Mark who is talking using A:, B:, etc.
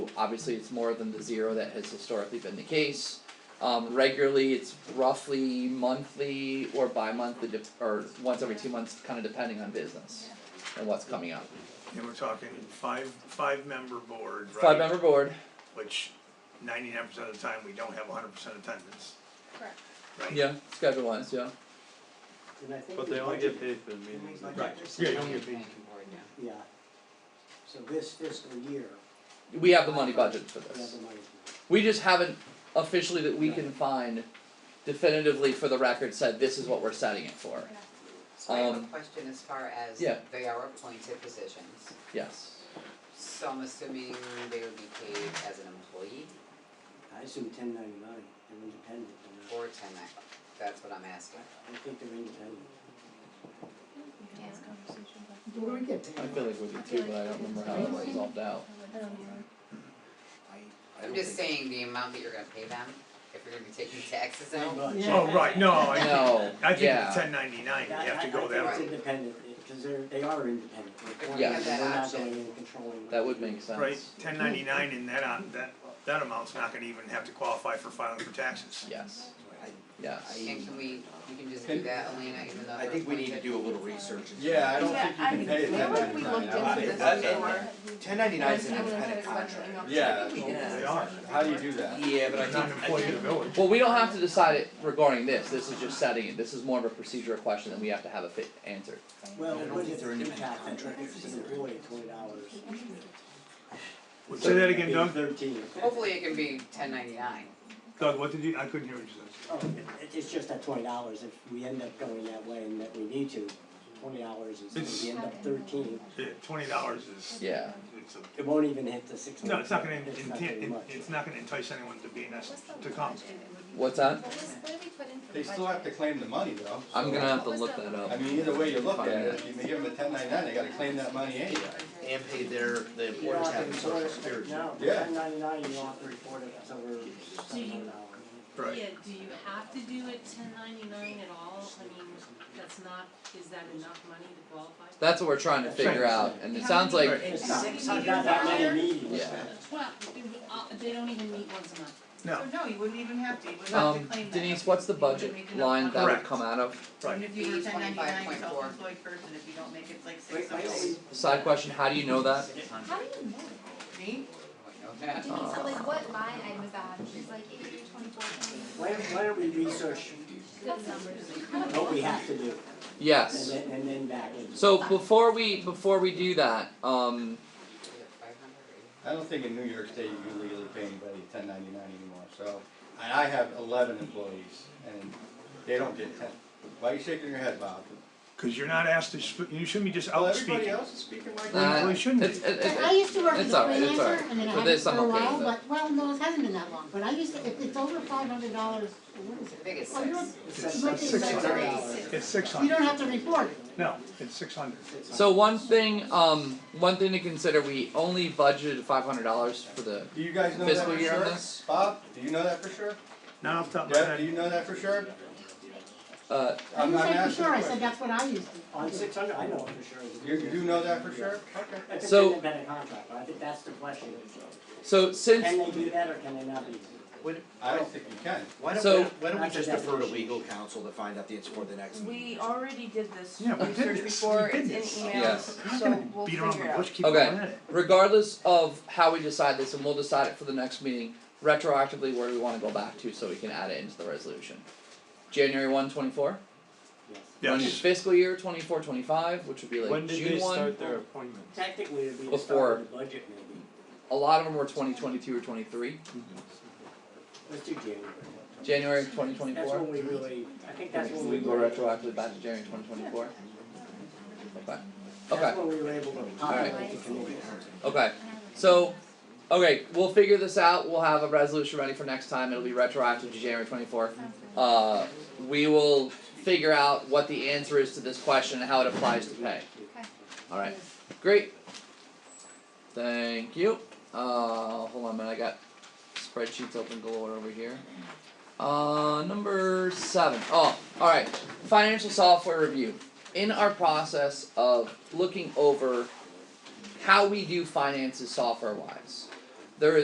A: Obviously, it's more than the zero that has historically been the case. Um, regularly, it's roughly monthly or bi-monthly, dep- or once every two months, kinda depending on business and what's coming up.
B: And we're talking five, five-member board, right?
A: Five-member board,
B: Which ninety-nine percent of the time, we don't have hundred percent attendance,
C: Correct.
B: right?
A: yeah, schedule wise, yeah.
D: And I think
E: But
D: we
E: they only
D: budgeted-
E: get paid for the
D: didn't we
E: meetings.
D: budget
F: Right.
D: this
F: Yeah, you
D: in
F: only
D: the
F: get paid.
D: planning board now? Yeah. So this fiscal year,
A: We have the money budgeted for
D: we have
A: this.
D: the money.
A: We just haven't officially that we can find definitively for the record said this is what we're setting it for,
G: So I have a
A: Um,
G: question as far as
A: yeah.
G: they are appointed positions,
A: yes.
G: so I'm assuming they would be paid as an employee
D: I assume ten ninety-nine, they're independent, they're not,
G: or ten nine, that's what I'm asking.
D: I think they're independent.
H: What do we get paid?
A: I feel like we did too, but I don't remember how it resolved out.
H: I don't know.
A: I
G: I'm
A: don't
G: just
A: think-
G: saying the amount that you're gonna pay them, if you're gonna be taking taxes
D: Pretty
G: out,
D: much.
H: Yeah.
B: Oh, right, no, I think,
A: No,
B: I think
A: yeah.
B: it's ten ninety-nine, you have to go
D: I- I
B: that
D: think
B: way,
D: it's independent, because they're, they are independent,
G: If we
D: they're
A: have
D: foreigners,
G: that
D: they're not
G: option,
D: going in and controlling.
A: That would make sense.
B: right? Ten ninety-nine and that, on- that, that amount's not gonna even have to qualify for filing for taxes.
A: Yes. Yes.
G: and can we, we can just do
F: Can-
G: that, Elena, even though
F: I
G: they're
F: think we need to
G: appointed?
F: do a little research. into
E: Yeah, I don't
C: Yeah,
E: think you can pay it
C: I,
E: ten
C: remember we looked
E: ninety-nine.
C: into
F: I-
C: this
F: I-
C: before.
F: that. 1099 is an
C: Everyone had
F: independent
C: a question,
F: contract.
E: Yeah,
C: I think we did.
B: They are,
E: How do you do that?
F: Yeah, but I
B: they're not an
F: think, I
B: employee of the
F: think,
B: village.
A: Well, we don't have to decide it regarding this, this is just setting it, this is more of a procedural question that we have to have a fit answer.
D: Well,
F: I don't
D: what
F: think
D: if
F: they're
D: we
F: independent
D: cap it, what if
F: contractors
D: it's an
F: either.
D: employee, twenty dollars?
B: Well, Say that again, Doug,
D: Thirteen.
G: Hopefully it can be ten ninety nine,
B: Doug, what did you, I couldn't hear what you
D: Oh, it- it's just that twenty dollars, if we end up going that way and that we need to, twenty dollars
B: It's-
D: is, we end up thirteen,
B: said, yeah, twenty dollars is,
A: Yeah,
B: it's a,
D: it won't even hit the six
B: no,
D: months,
B: it's not gonna,
D: it's
B: intent-
D: not very
B: it-
D: much.
B: it's not gonna entice anyone to be in us, to come.
A: what's that?
E: They still have to claim the money though.
A: I'm
E: so-
A: gonna have to look that up.
E: I mean, either way you look at it, if you give them a ten ninety-nine, they gotta claim that money anyway.
F: and pay their, the
D: You don't
F: employers
D: have to
F: having
D: report
F: social
D: it,
F: security.
D: no,
E: Yeah.
D: ten ninety-nine, you don't have to report it, so we're seven hundred dollars.
B: Right,
I: Yeah, do you have to do it ten ninety-nine at all? I mean, that's not, is that enough money to qualify?
A: That's what we're trying to figure out, and it sounds like,
B: Right.
D: It's not,
I: Six
D: it's not that
I: hundred
D: many meetings.
A: yeah.
I: Well, they would- uh, they don't even meet once a month.
B: no,
C: So no, you wouldn't even have to, you wouldn't have to
A: Um,
C: claim that.
A: Denise, what's the
C: You wouldn't
A: budget
C: make enough
A: line that
C: money.
A: would
B: Correct.
A: come out of?
C: Even if you were
G: Be
C: ten ninety nine
G: 25.4.
C: self-employed person, if you don't make it, it's like
D: Wait,
C: six
D: why don't
C: something.
D: we-
A: Side question, how do you know that?
I: How do you know?
C: Me?
G: I don't know that.
A: Uh,
J: Like what line item is that? She's like eighty, twenty-four, twenty.
D: Why don't, why don't we research
J: That's numbers.
D: what we have to do, and
A: Yes,
D: then, and then back in.
A: so before we, before we do that, um,
G: Is it 500 or-
E: I don't think in New York State you can legally pay anybody ten ninety-nine anymore, so, and I have eleven employees, and they don't get ten. Why are you shaking your head, Bob?
B: cause you're not asked to, sp- you shouldn't be just out speaking.
E: Everybody else is speaking like
B: Nah.
E: that.
B: Well,
A: uh,
B: it
A: it's,
B: shouldn't
A: it,
B: be.
A: it,
H: Like, I used to work as
A: It's
H: a
A: alright, it's
H: freelancer
A: alright.
H: and then I
A: For
H: haven't
A: this,
H: for
A: I'm
H: a
A: okay
H: while,
A: with it.
H: but, well, no, it hasn't been that long, but I used to, if it's over five hundred dollars, what is it?
G: I think it's
H: Oh, you
G: six.
H: don't-
B: It's
D: Six
B: six- six hundred.
D: dollars.
B: It's six
H: You
B: hundred.
H: don't have to report it.
B: No, it's six hundred.
A: So one thing, um, one thing to consider, we only budgeted five hundred dollars for the,
E: Do you guys know that
A: Fiscal
E: for
A: year on
E: sure?
A: this?
E: Bob, do you know that for sure?
B: Not off the top of my
E: Deb, do
B: head.
E: you know that for sure?
A: uh,
H: I
E: I'm
H: didn't
E: not
H: say for
E: asking
H: sure, I
E: the
H: said
E: question.
H: that's what I used to.
D: On
H: do.
D: six hundred, I know for sure. it's-
E: You, you do know that for sure? Okay.
D: If it's
A: So-
D: an independent contract, I think that's the question,
A: so
D: can
A: since,
D: they do that or can they not do that?
F: Would-
E: I don't think you can.
F: Why don't,
A: So-
F: why don't- why don't we
D: That's a
F: just defer to
D: definition.
F: legal counsel to find out the answer for the next meeting?
K: We already did this
B: Yeah, we did
K: research
B: this.
K: before,
B: We
K: it's
B: did
K: in
B: this.
A: Yes.
K: emails,
B: I'm not
K: so
B: gonna
K: we'll
B: beat
K: figure it out.
B: around the bush, keep going
A: Okay.
B: at it.
A: regardless of how we decide this, and we'll decide it for the next meeting, retroactively where do we wanna go back to, so we can add it into the resolution. January one twenty four,
D: Yes.
A: running
B: Yes.
A: fiscal year twenty four, twenty five, which would be like June one,
E: their appointments?
D: Technically, it'd be the
A: Before-
D: start of the budget maybe,
A: a lot of them were twenty twenty two or twenty three,
D: let's do January.
A: January twenty twenty
D: That's when
A: four.
D: we really, I think that's when we.
A: go retroactively back to January twenty twenty four. Okay, okay.
D: That's when we were able to populate the committee.
A: Okay, so, okay, we'll figure this out, we'll have a resolution ready for next time, it'll be retroactive to January twenty-fourth. Uh, we will figure out what the answer is to this question and how it applies to pay.
J: Okay.
A: Alright, great. Thank you, uh, hold on a minute, I got spreadsheets open galore over here. Uh, number seven. Oh, alright, financial software review. In our process of looking over how we do finances software wise.